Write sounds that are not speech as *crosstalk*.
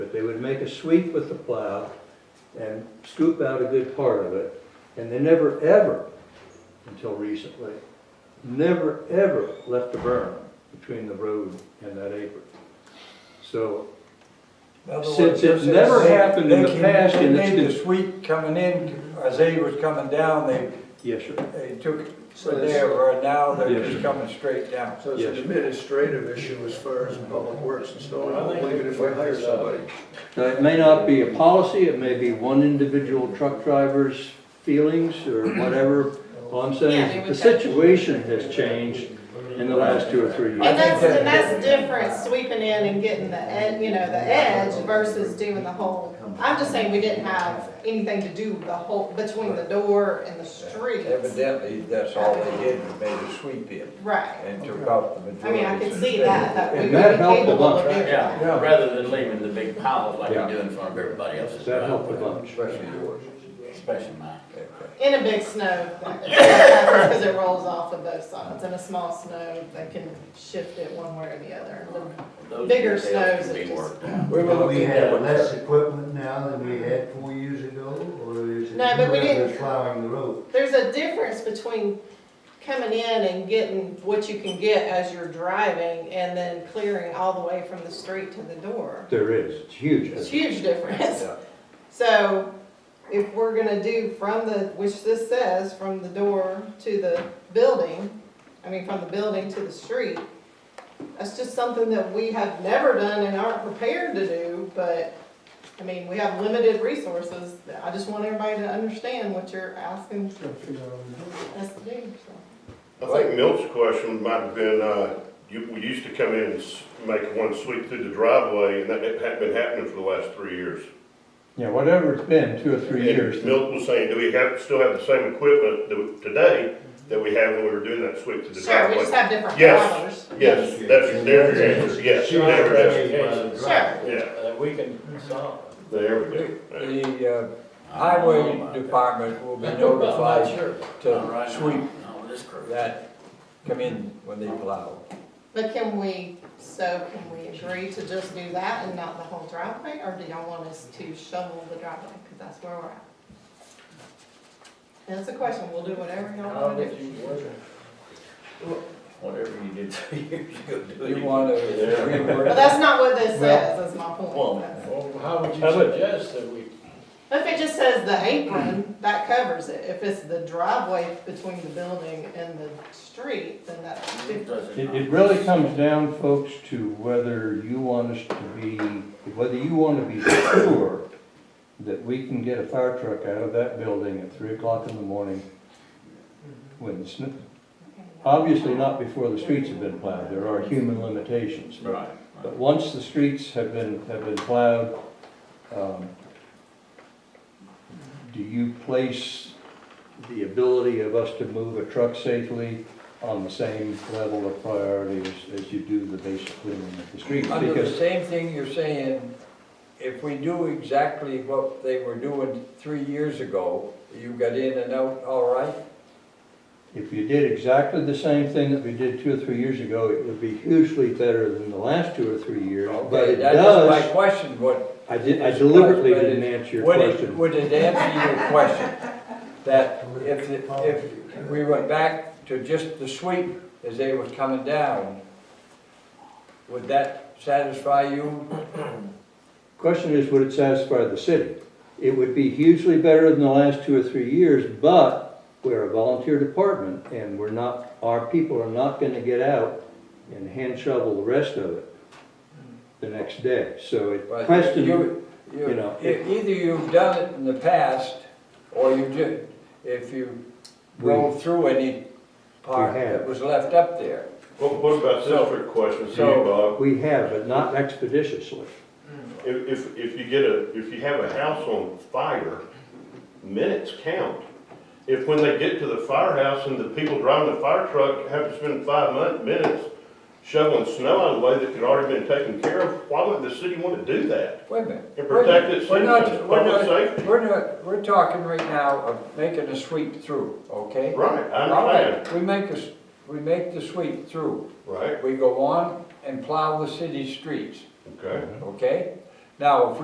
it. They would make a sweep with the plow and scoop out a good part of it. And they never, ever, until recently, never, ever left a berm between the road and that apron. So In other Since words, it never they- happened in they the can- past and They it's made the been- sweep coming in, as they was coming down, they, Yes, sir. they took it So from this- there, where now they're Yes, just sir. coming straight down. So it's an Yes. administrative issue as far as public works and so Well, I on, think even we if we can hire figure it out. somebody. Now, it may not be a policy, it may be one individual truck driver's feelings or whatever. All I'm saying Yeah, is they the would have- situation has changed in the last two or three And years. that's, and that's the difference, sweeping in and getting the, ed- you know, the edge versus doing the whole. I'm just saying we didn't have anything to do with the whole, between the door and the street. Evidently, that's all they did, was made a sweep in Right. and took out the I majority. mean, I of can the see state. that, that we And would that be helped a capable of bunch. doing that. Yeah, rather than leaving the big piles like Yeah. you do in front of everybody else's. That helped a driveway, bunch. Especially yours. Especially mine. In a big snow, because it rolls off of both sides. In a small snow, they can shift it one way or the other. Those Bigger details snows, can it be just- worked out. We were Do we looking at have what less equipment now than we had four years ago, or is it? No, but we whoever's didn't- Plowing the road. There's a difference between coming in and getting what you can get as you're driving and then clearing all the way from the street to the door. There is, it's huge. It's a huge difference. Yeah. *laughs* So if we're gonna do from the, which this says, from the door to the building, I mean, from the building to the street, that's just something that we have never done and aren't prepared to do, but, I mean, we have limited resources. I just want everybody to understand what you're asking us to do, so. I think Milt's question might have been, uh, you, we used to come in and s- make one sweep through the driveway, and that hadn't been happening for the last three years. Yeah, whatever it's been, two or three years. And Milt was saying, do we have, still have the same equipment that we- today that we had when we were doing that sweep through the Sure, we driveway? just have different Yes. colors. Yes, that's, there's your answer, yes, there it is. Sure. Yeah, Uh, we can solve. it. there we go. the uh, I don't know highway about that. department *laughs* will be I'm not notified sure. Not to right now. sweep Not with this crew. that come in when they plow. But can we, so can we agree to just do that and not the whole driveway, or do y'all want us to shovel the driveway, because that's where we're at? That's the question, we'll do whatever y'all wanna do. Whatever you did *laughs* two years ago, do it. You want to But rework that's not what this says, that's my Well, point. That's- well, how would you suggest that we? If it just says the apron, that covers it, if it's the driveway between the building and the street, then that's different. does It, not? it really comes down, folks, to whether you want us to be, whether you want to be sure that we can get a fire truck out of that building at three o'clock in the morning when the snow, obviously not before the streets have been plowed, there are human limitations. but- Right. But once the streets have been, have been plowed, um, do you place the ability of us to move a truck safely on the same level of priority as, as you do the basic cleaning of the streets? Under the Because, same thing you're saying, if we do exactly what they were doing three years ago, you got in and out all right? If you did exactly the same thing that we did two or three years ago, it would be hugely better than the last two or three years, but Okay, it Oh, that is my does, question, what, I did, I deliberately didn't answer your would it, question. would it answer your question? That if, it- if we went back to just the sweep as they was coming down, would that satisfy you? Question is, would it satisfy the city? It would be hugely better than the last two or three years, but we're a volunteer department and we're not, our people are not gonna get out and hand shovel the rest of it the next day. So it But question, you- you know, e- Either you've done it in the past, or you did, if you We- rolled through any part have. that was left up there. What, what about this trick question, to you, So- Bob? we have, but not expeditiously. If, if, if you get a, if you have a house on fire, minutes count. If when they get to the firehouse and the people driving the fire truck have to spend five mon- minutes shoveling snow out of the way that could already been taken care of, why would the city want to do that? Wait a minute. And protect its We're not- citizens, we're not- public safety. We're not, we're talking right now of making a sweep through, okay? Right, I All understand, right, we make a, s- we make the sweep through, right, we go on and plow the city streets, okay. okay? Now, if we